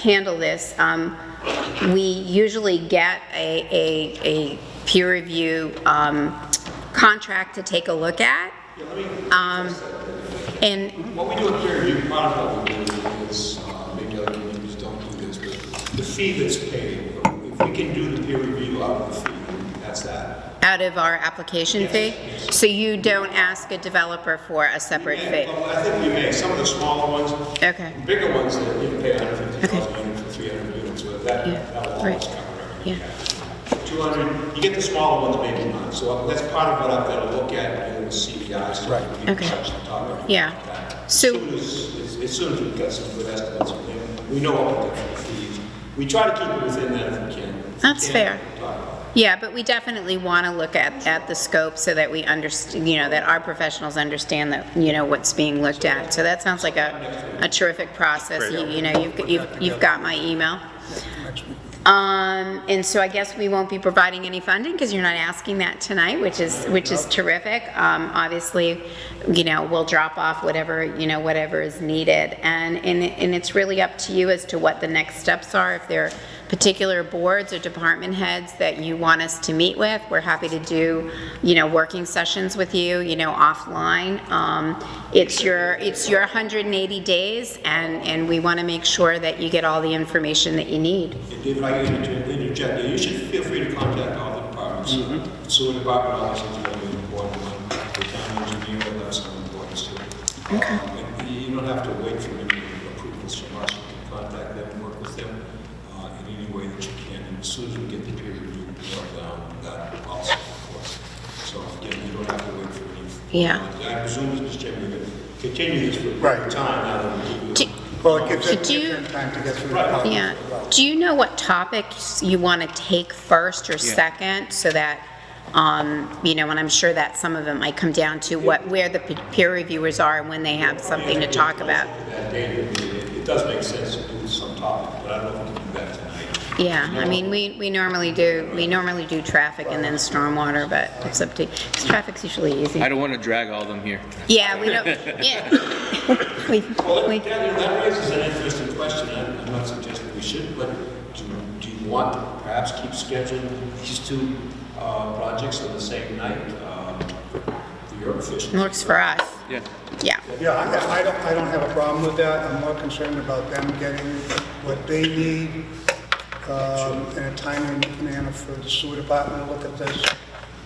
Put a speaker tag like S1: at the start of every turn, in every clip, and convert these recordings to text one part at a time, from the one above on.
S1: handle this. Um, We usually get a, a, a peer review um, contract to take a look at. Um, And,
S2: What we do in peer review, part of what we do is, uh, maybe other communities don't do this, but the fee that's paid, if we can do the peer review out of the fee, that's that.
S1: out of our application fee? So you don't ask a developer for a separate fee?
S2: Well, I think we may, some of the smaller ones,
S1: Okay.
S2: bigger ones, that you can pay hundred fifty
S1: Okay.
S2: dollars a unit for three hundred units, but that,
S1: Yeah,
S2: that will
S1: right.
S2: always cover
S1: Yeah.
S2: everything. Two hundred, you get the smaller ones, maybe not, so that's part of what I've got to look at in the CBI's. Right.
S1: Okay. Yeah. So,
S2: As soon as, as- as soon as we've got some good estimates, and we know what the potential fees, we try to keep it within that if we can. If we
S1: That's
S2: can't,
S1: fair.
S2: we talk about
S1: yeah, but we definitely want to look at, at the scope so that we understand, you know, that our professionals understand that, you know, what's being looked at. So that sounds like a, a terrific process. You you know, you've, you've you've got my email. Um, and so I guess we won't be providing any funding because you're not asking that tonight, which is, which is terrific. Um, obviously, you know, we'll drop off whatever, you know, whatever is needed. And, and, and it's really up to you as to what the next steps are. If there are particular boards or department heads that you want us to meet with, we're happy to do, you know, working sessions with you, you know, offline. Um, it's your, it's your 180 days and, and we want to make sure that you get all the information that you need.
S2: it. And David, I can inter- interject, there. you should feel free to contact all the departments. So the department obviously is really important, one. the town engineer will have some importance to it. Um, and You don't have to wait for any approvals from us, you can contact them, work with them uh, in any way that you can. And as soon as we get the peer review report down, that also, of course. So again, you don't have to wait for any.
S1: Yeah.
S2: I presume, Mr. Chairman, you're going to continue this for a period of
S3: Right.
S2: time now that we give
S1: Do-
S2: you.
S3: Well, it gives
S1: So
S3: it
S1: do you-
S3: time to get through the process.
S1: Yeah. Do you know what topics you want to take first or second so that, um, you know, and I'm sure that some of it might come down to what, where the pe- peer reviewers are and when they have something to talk about.
S2: That data, it- it does make sense to do some topic, but I don't know if we can do that tonight.
S1: Yeah, I mean, we, we normally do, we normally do traffic and then stormwater, but it's up to, 'cause traffic's usually easy.
S4: I don't want to drag all of them here.
S1: Yeah, we don't, yeah. We-
S2: Well,
S1: we-
S2: that, that raises an interesting question, I'm I'm not suggesting we should, but do, do you want to perhaps keep scheduling these two, uh, projects on the same night, um, for your efficiency?
S1: Works for us,
S4: Yeah.
S1: yeah.
S3: Yeah, I I don't, I don't have a problem with that. I'm more concerned about them getting what they need um, in a timely manner for the sewer department to look at this.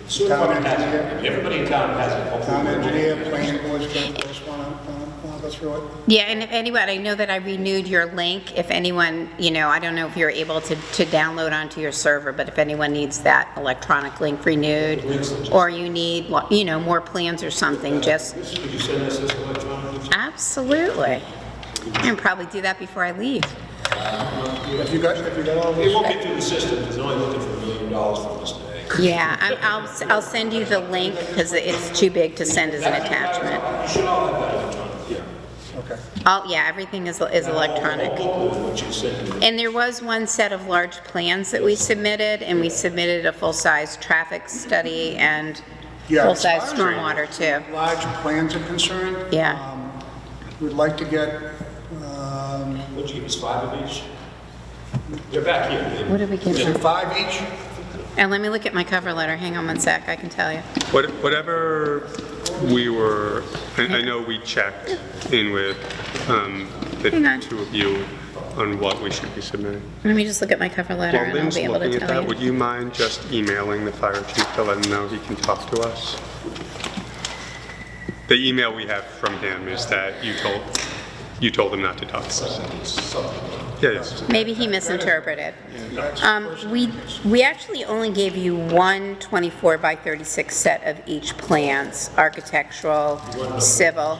S2: So
S3: Town
S2: everybody has it.
S3: engineer.
S2: Everybody in town has it. hopefully
S3: Town
S2: we will.
S3: engineer, planning board's going to just want to go through it.
S1: Yeah, and if anyone, I know that I renewed your link, if anyone, you know, I don't know if you're able to, to download onto your server, but if anyone needs that electronic link renewed, or you need, well, you know, more plans or something, just,
S2: Could you send us this electronically?
S1: absolutely. And probably do that before I leave.
S3: Have you got, have you got all
S2: It
S3: this?
S2: won't get through the system, because they're only looking for a million dollars from us today.
S1: Yeah, I- I'll, I'll send you the link, because it's too big to send as an attachment.
S2: You should all have that electronically. Yeah.
S3: Okay.
S1: Oh, yeah, everything is, is electronic.
S2: What you said, you
S1: And there was one set of large plans that we submitted, and we submitted a full-size traffic study and
S3: Yeah.
S1: full-size stormwater too.
S3: Large plans are concerned.
S1: Yeah.
S3: um, We'd like to get, um,
S2: what'd you give us, five of each? They're back here,
S1: What
S2: David.
S1: did we
S3: you
S1: get?
S3: said five each?
S1: And let me look at my cover letter, hang on one sec, I can tell you.
S5: What- Whatever we were, I I know we checked in with um, the
S1: Hang on.
S5: two of you on what we should be submitting.
S1: Let me just look at my cover letter,
S5: While
S1: and I'll
S5: Lynn's
S1: be able
S5: looking
S1: to
S5: at
S1: tell
S5: that, would
S1: you.
S5: you mind just emailing the fire chief to let him know he can talk to us? The email we have from him is that you told, you told him not to talk to us. Yeah, yes.
S1: Maybe he misinterpreted. Um, we, we actually only gave you one 24 by 36 set of each plans, architectural, civil,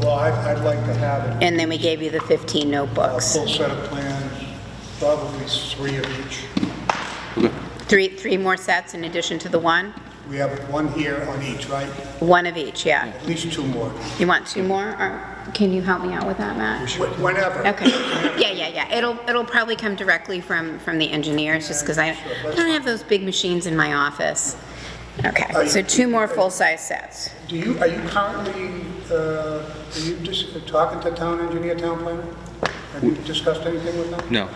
S3: Well, I'd I'd like to have it.
S1: and then we gave you the 15
S3: A
S1: notebooks.
S3: full set of plans, probably three of each.
S1: Three, three more sets in addition to the one?
S3: We have one here on each, right?
S1: One of each, yeah.
S3: At least two more.
S1: You want two more, or can you help me out with that, Matt?
S3: Wh- Whenever.
S1: Okay, yeah, yeah, yeah, it'll, it'll probably come directly from, from the engineers, just because I I don't have those big machines in my office. Okay, so two more full-size sets.
S3: Do you, are you currently, uh, are you just talking to town engineer, town planner? Have you discussed anything with them?
S4: No.